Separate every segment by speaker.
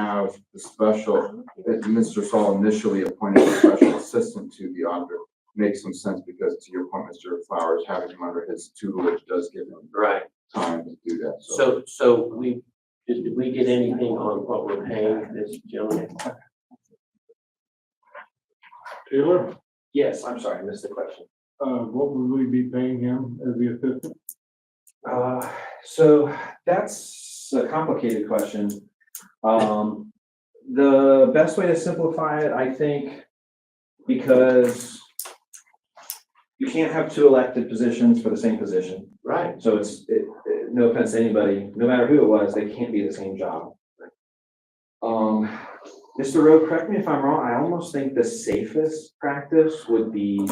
Speaker 1: have the special, that Mr. Saul initially appointed a special assistant to the auditor makes some sense because to your point, Mr. Flowers, having him under his tutelage does give him
Speaker 2: Right,
Speaker 1: time to do that, so.
Speaker 2: so, so we, did did we get anything on what we're paying this gentleman?
Speaker 3: Taylor,
Speaker 2: Yes, I'm sorry, I missed the question.
Speaker 3: uh, what would we be paying him as the assistant?
Speaker 4: Uh, so that's a complicated question. Um, the best way to simplify it, I think, because you can't have two elected positions for the same position.
Speaker 2: Right,
Speaker 4: So it's, it, it- no offense to anybody, no matter who it was, they can't be the same job. Um, Mr. Rowe, correct me if I'm wrong, I almost think the safest practice would be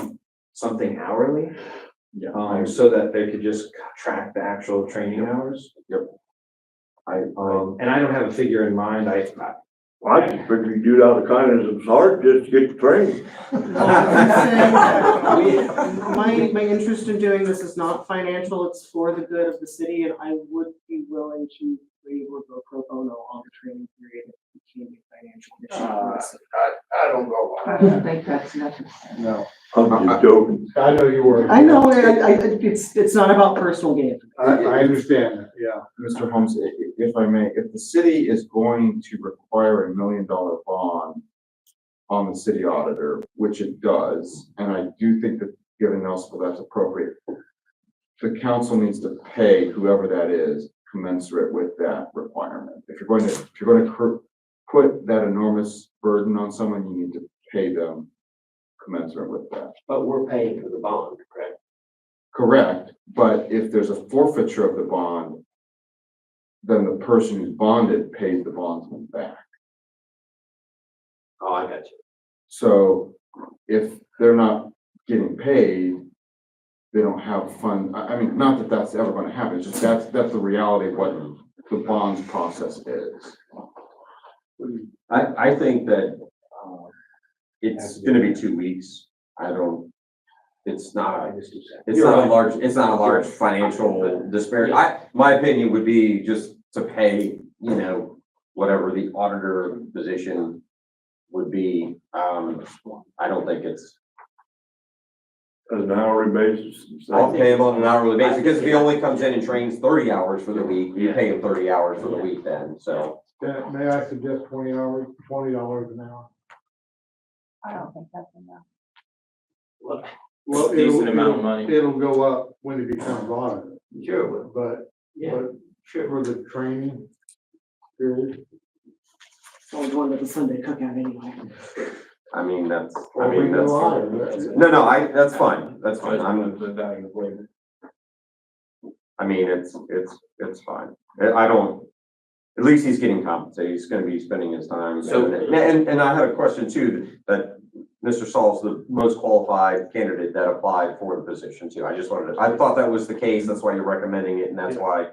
Speaker 4: something hourly.
Speaker 1: Yeah.
Speaker 4: Um, so that they could just track the actual training hours.
Speaker 1: Yep.
Speaker 4: I, um, and I don't have a figure in mind, I,
Speaker 5: Well, I just figured you do it out of the kindness of his heart, just to get the training.
Speaker 4: I. We-
Speaker 6: My, my interest in doing this is not financial, it's for the good of the city, and I would be willing to waive or go pro bono on the training period if it became a financial issue. for the city.
Speaker 5: I don't know.
Speaker 7: I don't think that's necessary.
Speaker 3: No.
Speaker 5: I'm just joking.
Speaker 3: I know you were.
Speaker 6: I know, I, I, I- it's, it's not about personal gain.
Speaker 3: I, I understand, that, yeah.
Speaker 1: Mr. Holmes, i- i- if I may, if the city is going to require a million dollar bond on the city auditor, which it does, and I do think that given Nelsonville, that's appropriate. The council needs to pay whoever that is commensurate with that requirement. If you're going to, if you're going to cr- put that enormous burden on someone, you need to pay them commensurate with that.
Speaker 2: but we're paying for the bond, correct?
Speaker 1: Correct, but if there's a forfeiture of the bond, then the person who's bonded pays the bondsman back.
Speaker 2: Oh, I got you.
Speaker 1: So if they're not getting paid, they don't have fund, I, I mean, not that that's ever gonna happen, it's just that's, that's the reality of what the bonds process is.
Speaker 8: I, I think that, uh, it's gonna be two weeks. I don't, it's not, it's
Speaker 2: You're
Speaker 8: not
Speaker 2: right.
Speaker 8: a large, it's not a large financial disparity. I, my opinion would be just to pay, you know, whatever the auditor position would be. Um, I don't think it's,
Speaker 5: On an hourly basis. it's
Speaker 8: I'll
Speaker 5: like-
Speaker 8: pay him on an hourly basis, because if he only comes in and trains thirty hours for the week, you pay him thirty hours for the week then, so.
Speaker 3: That- May I suggest twenty hours, twenty dollars an hour?
Speaker 7: I don't think that's enough.
Speaker 3: Well, decent amount of money. It'll go up when it becomes audited,
Speaker 2: Sure, well,
Speaker 3: but,
Speaker 2: yeah,
Speaker 3: but
Speaker 2: sure.
Speaker 3: for the training period.
Speaker 6: So I'm going to the Sunday cookout anyway.
Speaker 8: I mean, that's, I
Speaker 3: or we
Speaker 8: mean,
Speaker 3: go
Speaker 8: that's.
Speaker 3: audited, that's-
Speaker 8: No, no, I, that's fine, that's fine, I'm,
Speaker 1: the value of labor.
Speaker 8: I mean, it's, it's, it's fine. I I don't, at least he's getting compensated. He's gonna be spending his time.
Speaker 2: So-
Speaker 8: And, and- and I had a question too, that Mr. Saul's the most qualified candidate that applied for the position too. I just wanted to, I thought that was the case. That's why you're recommending it and that's why.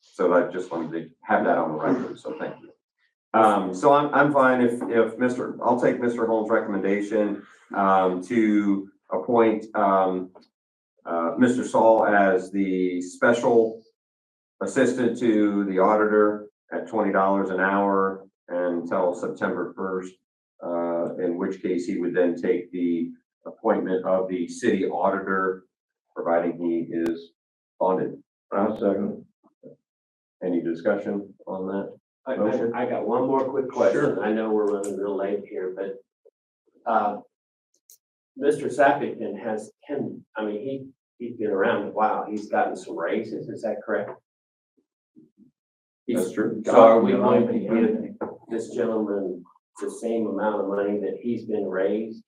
Speaker 8: So I just wanted to have that on the record, so thank you. Um, so I'm, I'm fine if, if Mr., I'll take Mr. Holmes' recommendation, um, to appoint, um, uh, Mr. Saul as the special assistant to the auditor at twenty dollars an hour until September first. Uh, in which case he would then take the appointment of the city auditor, providing he is bonded.
Speaker 5: I'll second.
Speaker 8: Any discussion on that?
Speaker 2: I,
Speaker 8: Motion.
Speaker 2: I, I got one more quick question.
Speaker 8: Sure.
Speaker 2: I know we're running real late here, but, uh, Mr. Sappington has ten, I mean, he, he's been around a while. He's gotten some raises, is that correct? He's-
Speaker 8: That's true.
Speaker 2: So are we going to give this gentleman the same amount of money that he's been raised?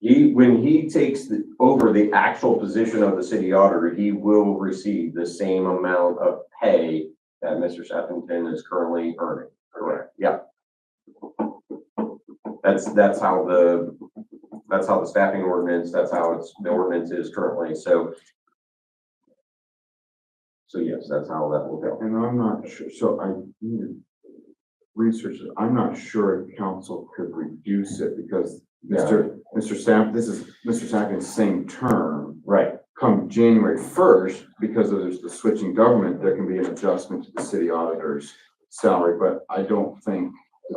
Speaker 8: He, when he takes the, over the actual position of the city auditor, he will receive the same amount of pay that Mr. Sheffington is currently earning. Correct. Yeah. That's, that's how the, that's how the staffing ordinance, that's how it's, the ordinance is currently, so. So yes, that's how that will go.
Speaker 1: And I'm not sure, so I need to research it. I'm not sure if council could reduce it because Mr. Mr. Sapp, this is Mr. Sappington's same term.
Speaker 8: Right.
Speaker 1: Come January first, because of there's the switching government, there can be an adjustment to the city auditor's salary, but I don't think